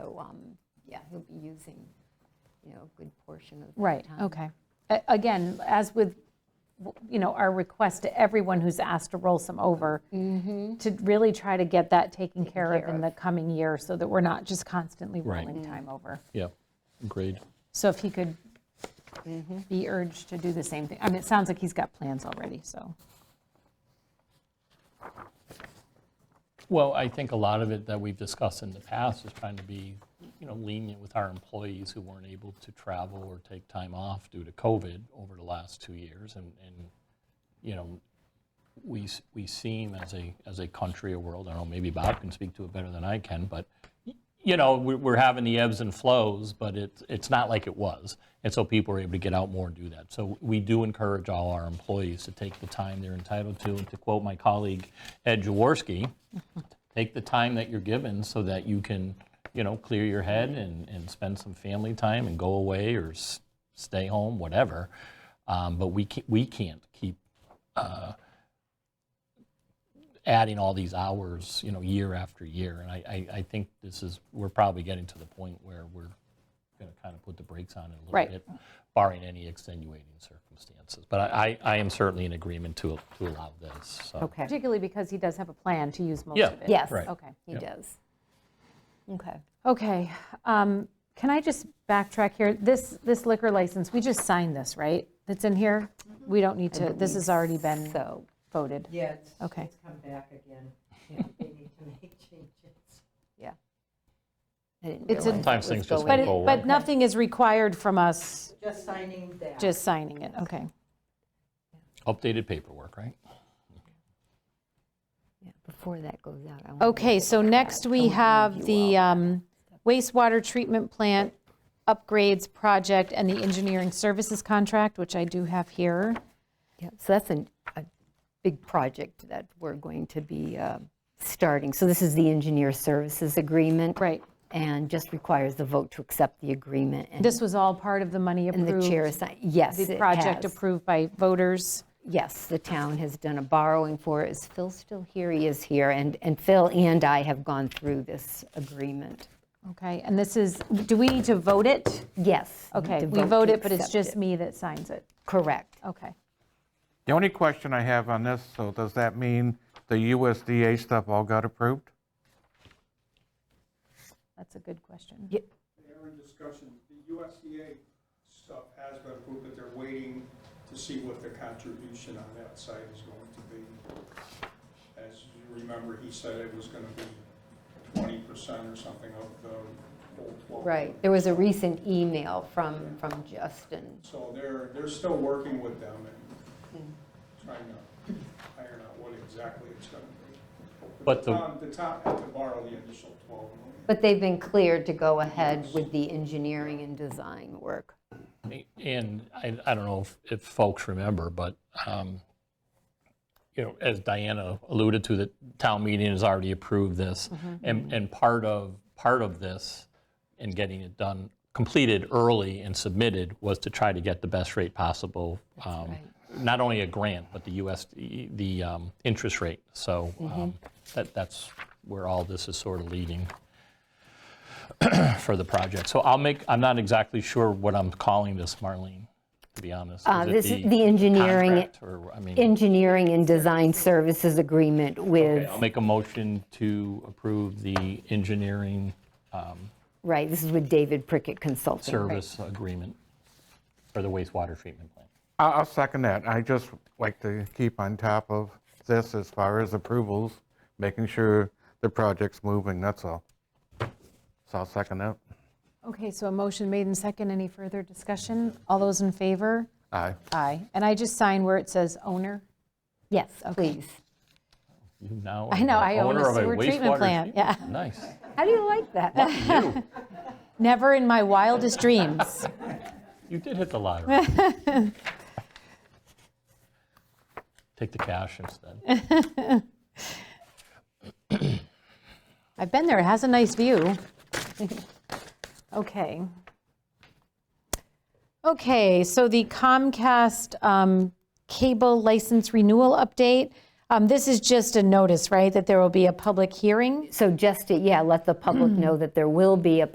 um, yeah, he'll be using, you know, a good portion of that time. Right, okay. A- Again, as with, you know, our request to everyone who's asked to roll some over, to really try to get that taken care of care in the coming year so that we're not just constantly Right. rolling time over. Yeah, agreed. So if he could be urged to do the same thing, I mean, it sounds like he's got plans already, so. Well, I think a lot of it that we've discussed in the past is trying to be, you know, lenient with our employees who weren't able to travel or take time off due to COVID over the last two years. And, and you know, we, s- we seem as a, as a country or world, I don't know, maybe Bob can speak to it better than I can, but, y- you know, we're, we're having the ebbs and flows, but it's, it's not like it was. And so people are able to get out more and do that. So we do encourage all our employees to take the time they're entitled to. And to quote my colleague Ed Jaworski, take the time that you're given so that you can, you know, clear your head and, and spend some family time and go away or s- stay home, whatever. Um, but we can't, we can't keep uh, adding all these hours, you know, year after year. And I, I, I think this is, we're probably getting to the point where we're going to kind of put the brakes on it a little Right. bit, barring any extenuating circumstances. But I, I, I am certainly in agreement to, to allow this. So. Okay, Particularly because he does have a plan to use most Yeah, of it. Yes. oh, right. Okay. he does. Okay. Okay, um, can I just backtrack here? This, this liquor license, we just signed this, right? That's in here? We don't need to, this has already been So, voted. Yeah, it's, Okay. it's come back again. Yeah, They need to make changes. I didn't It's realize a- it Sometimes was things just But, going- it- Go away. but nothing is required from us Just signing that. just signing it, okay. Updated paperwork, right? yeah, Before that goes out. I wanna Okay, look so at that. next I we wanna have review all the that. um, wastewater treatment plant upgrades project and the engineering services contract, which I do have here. Yeah, so that's an- a big project that we're going to be uh, starting. So this is the engineer services agreement. Right, And just requires the vote to accept the agreement. and- this was all part of the money And approved. the chair, assi- yes, The it project has. approved by voters. Yes, the town has done a borrowing for it. Is Phil still here? He is here. And and Phil and I have gone through this agreement. Okay, and this is, do we need to vote it? Yes. Okay, to we to vote it, but it's accept it. just me that signs it. Correct. Okay. The only question I have on this, so does that mean the USDA stuff all got approved? That's a good question. They're in discussion, the USDA stuff has been approved, but they're waiting to see what the contribution on that site is going to be. As you remember, he said it was gonna be twenty percent or something of the whole twelve. Right. There was a recent email from from Justin. So they're, they're still working with them and trying to iron out what exactly it's gonna be. But the- town- The town had to borrow the initial twelve million. But they've been cleared to go ahead with the engineering and design work. And I, I don't know if, if folks remember, but, um, you know, as Diana alluded to, the town meeting has already approved this. Mm-hmm. And, and part of, part of this and getting it done, completed early and submitted was to try to get the best rate possible. um, Not only a grant, but the US, the um, interest rate. So Mm-hmm. um, that, that's where all this is sort of leading for the project. So I'll make, I'm not exactly sure what I'm calling this, Marlene, to be honest. Uh, it this is the engineering- contract Or, I mean, Engineering and design services agreement with, I'll make a motion to approve the engineering right, this is with David Prickett Consulting. service agreement for the wastewater treatment plant. I- I'll second that. I just like to keep on top of this as far as approvals, making sure the project's moving, that's all. So I'll second that. Okay, so a motion made and second. Any further discussion? All those in favor? Aye. Aye. And I just sign where it says owner. Yes, please. You now I know, are I the own a owner of sewer treatment wastewater plant, yeah. treatment- Nice. How do you like that? Never in my wildest dreams. You did hit the lottery. Take the cash instead. I've been there, it has a nice view. Okay. Okay, so the Comcast um, cable license renewal update. Um, This is just a notice, right, that there will be a public hearing? So just, to- yeah, let the public know that there will be a